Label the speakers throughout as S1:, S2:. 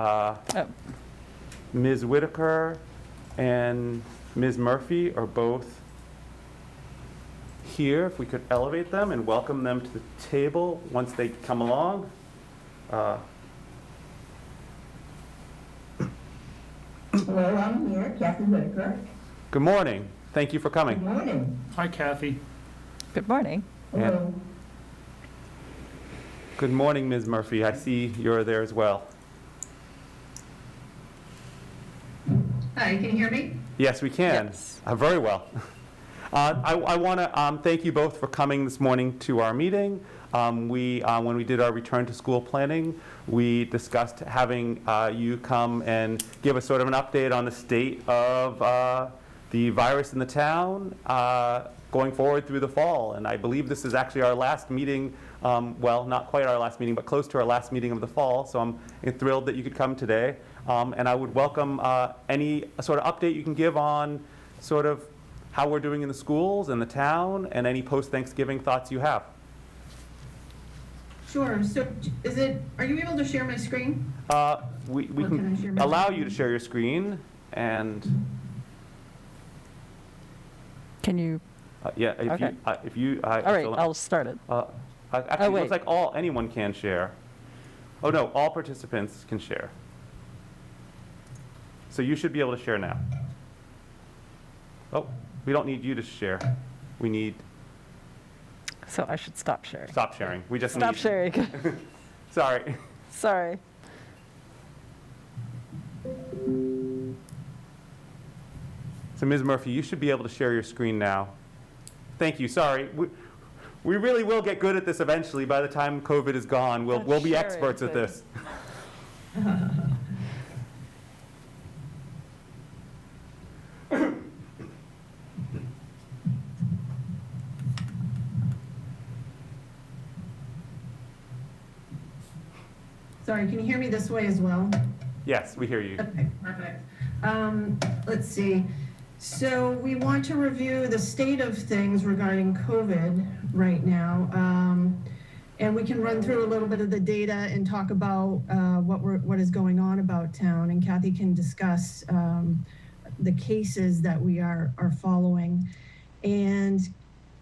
S1: Uh,
S2: Oh.
S1: Ms. Whitaker and Ms. Murphy are both here. If we could elevate them and welcome them to the table once they come along. Uh,
S3: Hello, I'm here, Kathy Whitaker.
S1: Good morning. Thank you for
S3: Good
S1: coming.
S3: morning.
S4: Hi Kathy.
S2: Good morning.
S3: Hello.
S1: Good morning, Ms. Murphy. I see you're there as well.
S5: Hi, can you hear me?
S1: Yes, we can.
S2: Yes.
S1: Uh, Very well. Uh, I, I want to thank you both for coming this morning to our meeting. Um, We, uh, when we did our return to school planning, we discussed having uh, you come and give us sort of an update on the state of uh, the virus in the town uh, going forward through the fall. And I believe this is actually our last meeting, um, well, not quite our last meeting, but close to our last meeting of the fall. So I'm thrilled that you could come today. Um, And I would welcome uh, any sort of update you can give on sort of how we're doing in the schools and the town, and any post-Thanksgiving thoughts you have.
S5: Sure, so is it, are you able to share my screen?
S1: Uh, We we
S5: Or can I share
S1: can
S5: my
S1: allow
S5: screen?
S1: you to share your screen, and,
S2: Can you,
S1: uh, yeah, if
S2: Okay.
S1: you, uh, if you.
S2: all right, I'll start it.
S1: uh, Actually, it looks
S2: wait.
S1: like all, anyone can share. Oh, no, all participants can share. So you should be able to share now. Oh, we don't need you to share. We need,
S2: So I should stop sharing.
S1: stop sharing. We just need.
S2: Stop sharing.
S1: Sorry.
S2: Sorry.
S1: So Ms. Murphy, you should be able to share your screen now. Thank you, sorry. We- We really will get good at this eventually. By the time COVID is gone, we'll,
S2: At
S1: we'll be
S2: sharing
S1: experts at
S2: things.
S1: this.
S5: Sorry, can you hear me this way as well?
S1: Yes, we hear you.
S5: Okay, perfect. Um, Let's see. So we want to review the state of things regarding COVID right now. Um, And we can run through a little bit of the data and talk about uh, what we're, what is going on about town. And Kathy can discuss um, the cases that we are, are following. And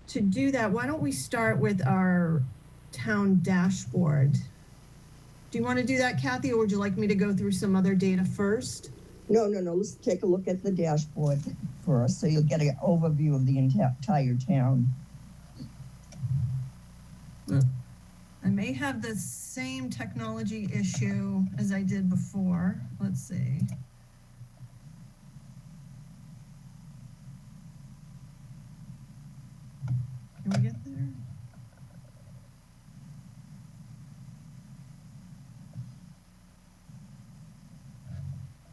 S5: to do that, why don't we start with our town dashboard? Do you want to do that, Kathy, or would you like me to go through some other data first?
S3: No, no, no, let's take a look at the dashboard first, so you'll get an overview of the entire town.
S5: I may have the same technology issue as I did before. Let's see. Can we get there?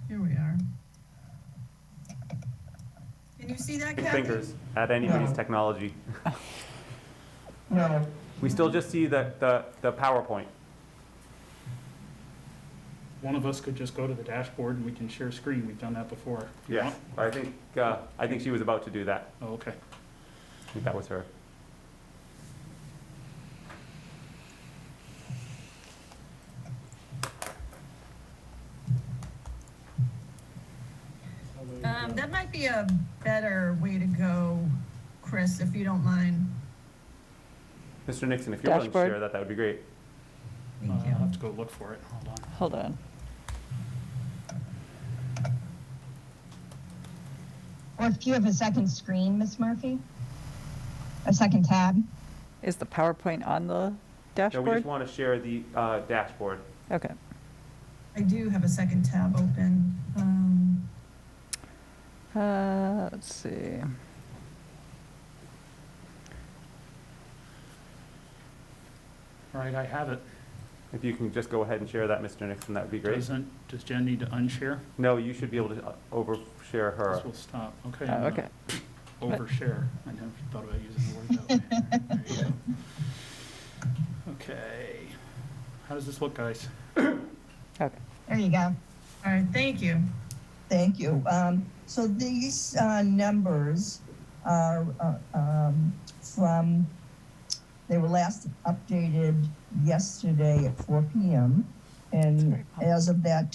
S5: Here we are. Can you see that,
S1: Big
S5: Kathy?
S1: fingers at anybody's
S3: No.
S1: technology.
S3: No,
S1: We still just see the, the, the PowerPoint.
S4: One of us could just go to the dashboard and we can share screen. We've done that before. If you
S1: Yes,
S4: want.
S1: I think, uh, I think she was about to do that.
S4: Oh, okay.
S1: I think that was her.
S4: Uh,
S5: Um, that might be a better way to go, Chris, if you don't mind.
S1: Mr. Nixon, if you're willing to
S2: Dashboard.
S1: share that, that would be great.
S4: Uh, I'll have to go look for it. Hold on.
S2: Hold on.
S6: Or if you have a second screen, Miss Murphy? A second tab?
S2: Is the PowerPoint on the
S1: No, we
S2: dashboard?
S1: just want to share the uh, dashboard.
S2: Okay.
S5: I do have a second tab open. Um,
S2: Uh, Let's see.
S4: All right, I have it.
S1: If you can just go ahead and share that, Mr. Nixon, that would be great.
S4: Doesn't, does Jen need to unshare?
S1: No, you should be able to uh, overshare her.
S4: This will stop. Okay.
S2: Oh,
S4: I'm
S2: Okay.
S4: gonna Overshare. I never thought about using the word that way. There you go. Okay. How does this look, guys?
S2: Okay.
S6: There you go.
S5: all right, thank you.
S3: thank you. Um, so these, uh, numbers are, uh, um, from, they were last updated yesterday at four PM. And as of that